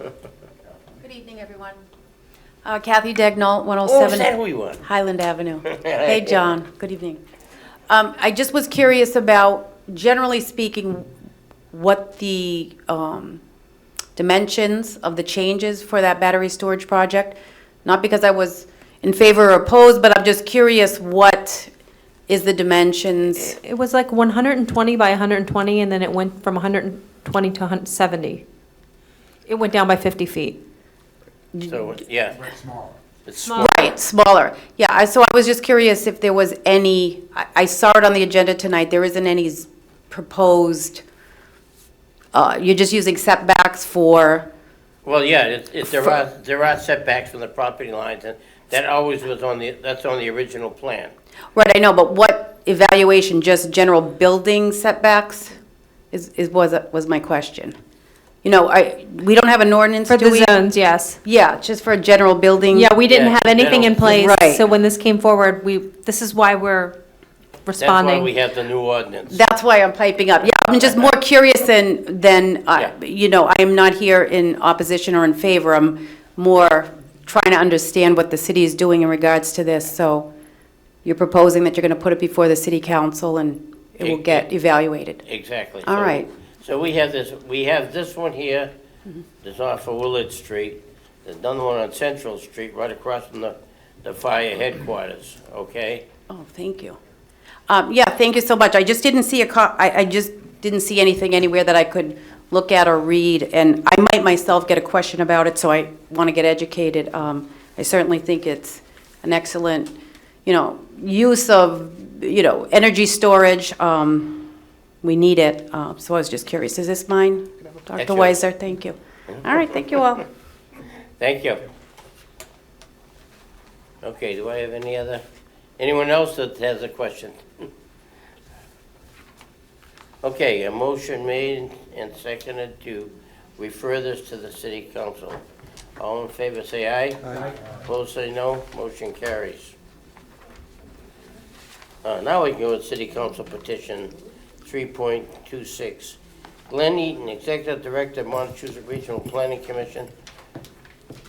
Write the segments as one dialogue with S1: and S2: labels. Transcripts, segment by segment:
S1: Good evening, everyone. Uh, Kathy Dagnall, 107.
S2: that Oh, who you want?
S1: Highland Avenue. Hey, John, good evening. Um, I just was curious about, generally speaking, what the um, dimensions of the changes for that battery storage project? Not because I was in favor or opposed, but I'm just curious, what is the dimensions?
S3: It was like 120 by 120, and then it went from 120 to 170. It went down by 50 feet.
S2: So, yeah. It's small.
S1: Right, Um, smaller. Yeah, I, so I was just curious if there was any, I, I saw it on the agenda tonight, there isn't any s- proposed, uh, you're just using setbacks for,
S2: Well, yeah, it, it, there are, there are setbacks from the property lines, and that always was on the, that's on the original plan.
S1: right, I know, but what evaluation, just general building setbacks is, is, was, was my question. You know, I, we don't have an ordinance,
S3: For
S1: do we?
S3: the zones, yes.
S1: Yeah, just for a general building.
S3: Yeah, we didn't
S2: Yeah,
S3: have anything in place.
S1: Right.
S3: So when this came forward, we, this is why we're
S2: That's why we
S3: responding.
S2: have the new ordinance.
S1: That's why I'm piping up. Yeah, I'm just more curious than, than, I-
S2: Yeah.
S1: you know, I am not here in opposition or in favor. I'm more trying to understand what the city is doing in regards to this. So you're proposing that you're going to put it before the city council and it will get evaluated.
S2: Exactly.
S1: All
S2: So-
S1: right.
S2: So we have this, we have this one here, that's off of Willard Street, there's another one on Central Street, right across from the, the fire headquarters, okay?
S1: Oh, thank you. Um, Yeah, thank you so much. I just didn't see a, co- I, I just didn't see anything anywhere that I could look at or read, and I might myself get a question about it, so I want to get educated. Um, I certainly think it's an excellent, you know, use of, you know, energy storage. Um, We need it, Uh, so I was just curious. Is this mine? Dr.
S2: Excellent.
S1: Weiser, thank you. All right, thank you all.
S2: Thank you. Okay, do I have any other, anyone else that has a question? Okay, a motion made and seconded to refer this to the city council. All in favor, say aye. Aye. Opposed, say no. Motion carries. Uh, now we go with city council petition three point two six. Glenn Eaton, Executive Director, Montezuma Regional Planning Commission,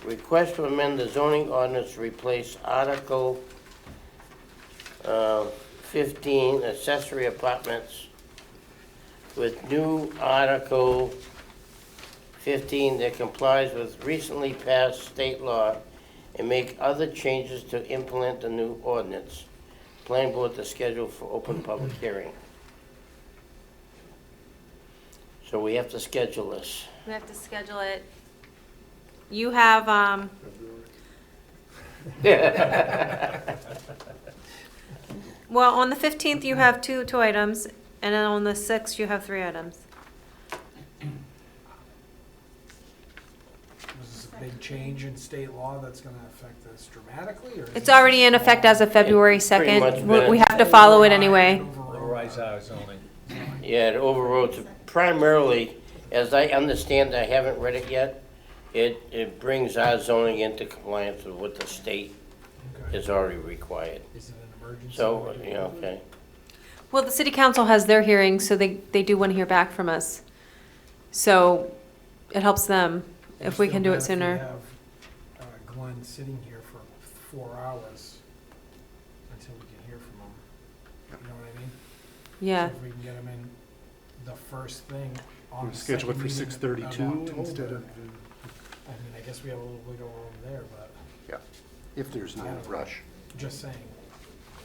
S2: Request to amend the zoning ordinance to replace Article uh, 15, accessory apartments, with new Article 15 that complies with recently passed state law and make other changes to implement the new ordinance. Planning board to schedule for open public hearing. So we have to schedule this.
S3: We have to schedule it. You have, um, well, on the 15th, you have two, two items, and then on the 6th, you have three items.
S4: Was this a big change in state law that's gonna affect this dramatically, or? is
S3: It's
S4: it
S3: already in effect as of February
S2: pretty much
S3: 2nd. We- We
S2: been-
S3: have to follow it anyway.
S4: overruled?
S2: Yeah, it overrode, primarily, as I understand, I haven't read it yet, it, it brings our zoning into compliance with what the state
S4: Okay.
S2: has already required.
S4: Is it an emergency?
S2: So, yeah, okay.
S3: Well, the city council has their hearing, so they, they do want to hear back from us. So it helps them if we can do it
S4: Still
S3: sooner.
S4: bad if we have, uh, Glenn sitting here for four hours until we can hear from him, you know what I mean?
S3: Yeah.
S4: So If we can get him in the first thing on
S5: Wanna
S4: the
S5: schedule it
S4: second
S5: for
S4: meeting of
S5: 6:32
S4: October,
S5: instead of,
S4: I mean, I guess we have a little wiggle room there, but
S5: if there's no rush.
S4: just saying,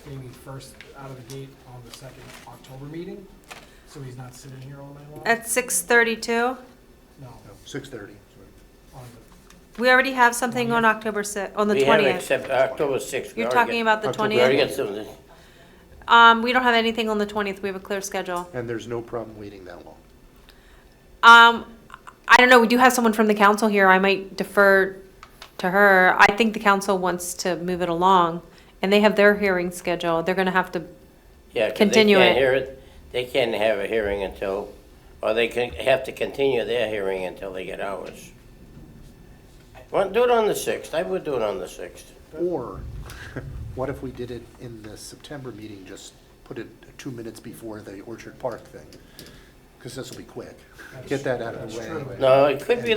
S4: maybe first out of the gate on the second October meeting, so he's not sitting here all night long?
S3: At 6:32,
S4: No,
S5: Six thirty.
S4: on
S3: we already have something on October 6th, on the
S2: We haven't
S3: 20th.
S2: accepted, October 6th. we
S3: You're
S2: already
S3: talking
S2: got-
S3: about the
S5: October
S2: We already
S3: 20th?
S2: got something,
S3: Um, we don't have anything on the 20th. We have a clear schedule.
S5: And there's no problem waiting that long.
S3: Um, I don't know, we do have someone from the council here. I might defer to her. I think the council wants to move it along, and they have their hearing scheduled. They're going to have to,
S2: yeah, 'cause they
S3: Continue
S2: can't
S3: it.
S2: hear it, they can't have a hearing until, or they can, have to continue their hearing until they get ours. Well, do it on the 6th, I would do it on the 6th.
S5: Or what if we did it in the September meeting, just put it two minutes before the Orchard Park thing? Because this will be quick. Get that out of the way.
S4: true.
S2: No, it could be